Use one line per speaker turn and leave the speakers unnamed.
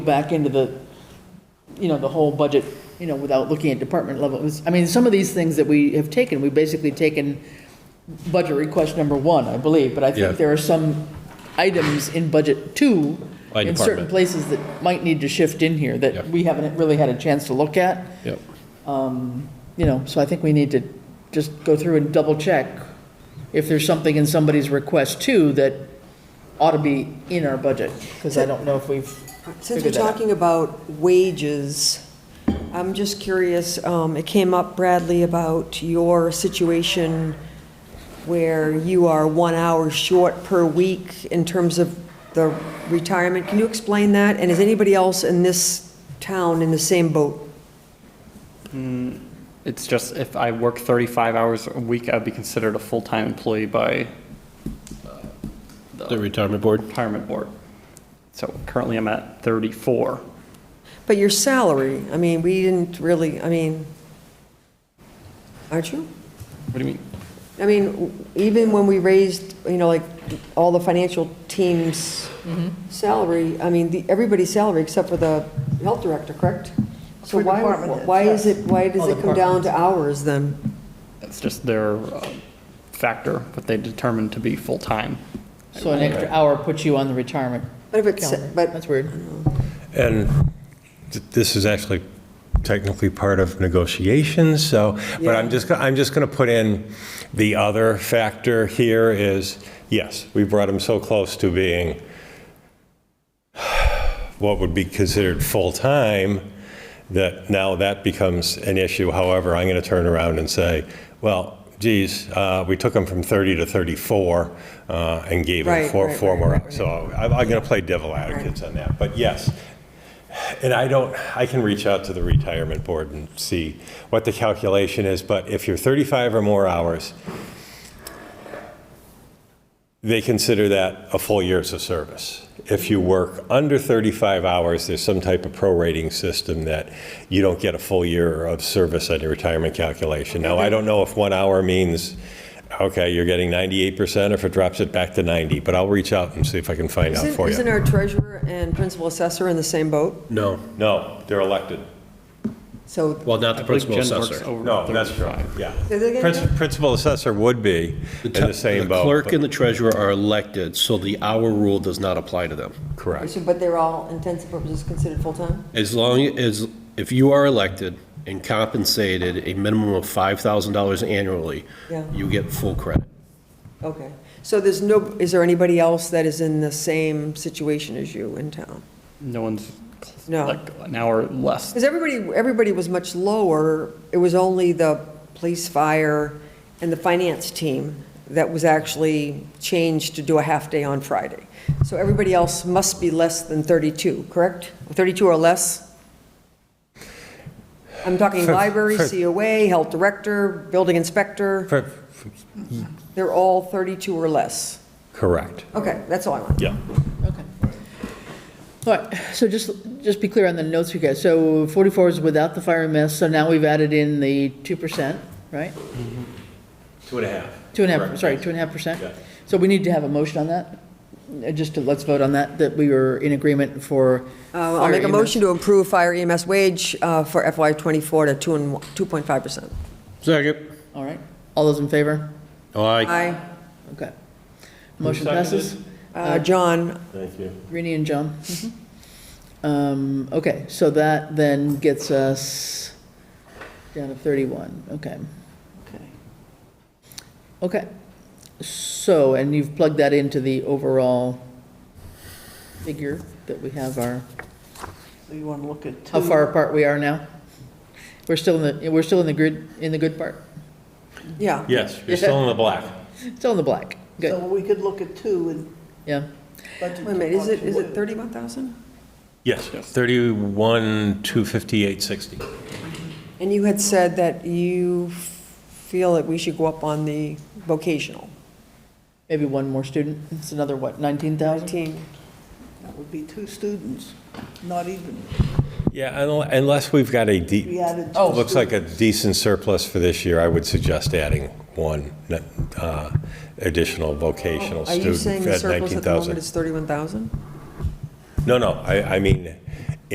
back into the, you know, the whole budget, you know, without looking at department levels. I mean, some of these things that we have taken, we've basically taken budget request number one, I believe, but I
Yeah.
think there are some items in budget two
By
in certain
department.
places that might need to shift in here
Yeah.
that we haven't really had a chance to look at, Um,
Yep.
you know, so I think we need to just go through and double check if there's something in somebody's request two that ought to be in our budget, because I don't know if we've figured
Since we're
that out.
talking about wages, I'm just curious, um, it came up, Bradley, about your situation where you are one hour short per week in terms of the retirement. Can you explain that? And is anybody else in this town in the same boat?
It's just if I work 35 hours a week, I'd be considered a full-time employee by
The retirement board?
retirement board. So currently I'm at 34.
But your salary, I mean, we didn't really, I mean, aren't you?
What do you mean?
I mean, even when we raised, you know, like, all the financial team's
Mm-hmm.
salary, I mean, the- everybody's salary except for the health director, correct? So
For
why,
department heads,
why is
yes.
it, why does
All
it come down
departments.
to hours then?
It's just their uh, factor, what they determine to be full-time.
So an extra hour puts you on the retirement
But if it's,
calendar.
but,
That's weird.
And th- this is actually technically part of negotiations, so, but I'm
Yeah.
just, go- I'm just going to put in the other factor here is, yes, we brought him so close to being what would be considered full-time, that now that becomes an issue. However, I'm going to turn around and say, well, geez, uh, we took him from 30 to 34 uh, and gave him
Right,
four,
right,
four
right,
more.
right, right.
So I'm, I'm going to play devil advocates on that, but yes. And I don't, I can reach out to the retirement board and see what the calculation is, but if you're 35 or more hours, they consider that a full year's of service. If you work under 35 hours, there's some type of prorating system that you don't get a full year of service on your retirement calculation. Now, I don't know if one hour means, okay, you're getting 98%, or if it drops it back to 90, but I'll reach out and see if I can find out
isn't,
for
isn't
you.
our treasurer and principal assessor in the same boat?
No.
No, they're elected.
So,
Well, not
I
the
believe
principal
Jen works
assessor.
over
No, that's true,
35.
yeah.
Say that again,
Princi-
Jeff?
Principal assessor would be in the same boat.
The clerk
but-
and the treasurer are elected, so the hour rule does not apply to them.
Correct.
so- but they're all intents and purposes considered full-time?
As long as, if you are elected and compensated a minimum of $5,000 annually,
Yeah.
you get full credit.
Okay. So there's no, is there anybody else that is in the same situation as you in town?
No one's
No.
like an hour less.
Because everybody, everybody was much lower. It was only the police, fire, and the finance team that was actually changed to do a half-day on Friday. So everybody else must be less than 32, correct? 32 or less? I'm talking
For-
library,
for-
COA, health director, building inspector.
For-
They're all 32 or less.
Correct.
Okay, that's all I want.
Yeah.
Okay. All right, so just, just be clear on the notes you guys. So 44 is without the fire and mess, so now we've added in the 2%, right?
Mm-hmm. Two and a half.
Two and a half, sorry, two and a half percent?
Yeah.
So we need to have a motion on that? Uh, Just to, let's vote on that, that we were in agreement for.
Uh, I'll
fire
make a
EMS.
motion to improve fire EMS wage uh, for FY '24 to 2 and 2.5%.
Second.
All right, all those in favor?
Aye.
Aye.
Okay. Motion passes.
Uh, John,
Thank you.
Rini and John. Um, Okay, so that then gets us down to 31, okay. Okay, so, and you've plugged that into the overall figure that we have our,
So you want to look at two?
how far apart we are now? We're still in the, we're still in the grid, in the good part,
yeah.
Yes, you're still in the black.
still in the black, good,
So we could look at two and
yeah.
budget.
Wait a minute, is it, is it
thirty?
31,000?
Yes, 31, 258, 60.
And you had said that you feel that we should go up on the vocational,
Maybe one more student, it's another, what, 19,000?
19.
That would be two students, not even.
Yeah, unle- unless we've got a
We
de,
added two.
Oh.
looks like a decent surplus for this year, I would suggest adding one uh, additional vocational
Are you
student
saying the
at
surplus at the moment
19,000.
is 31,000?
No, no, I, I mean,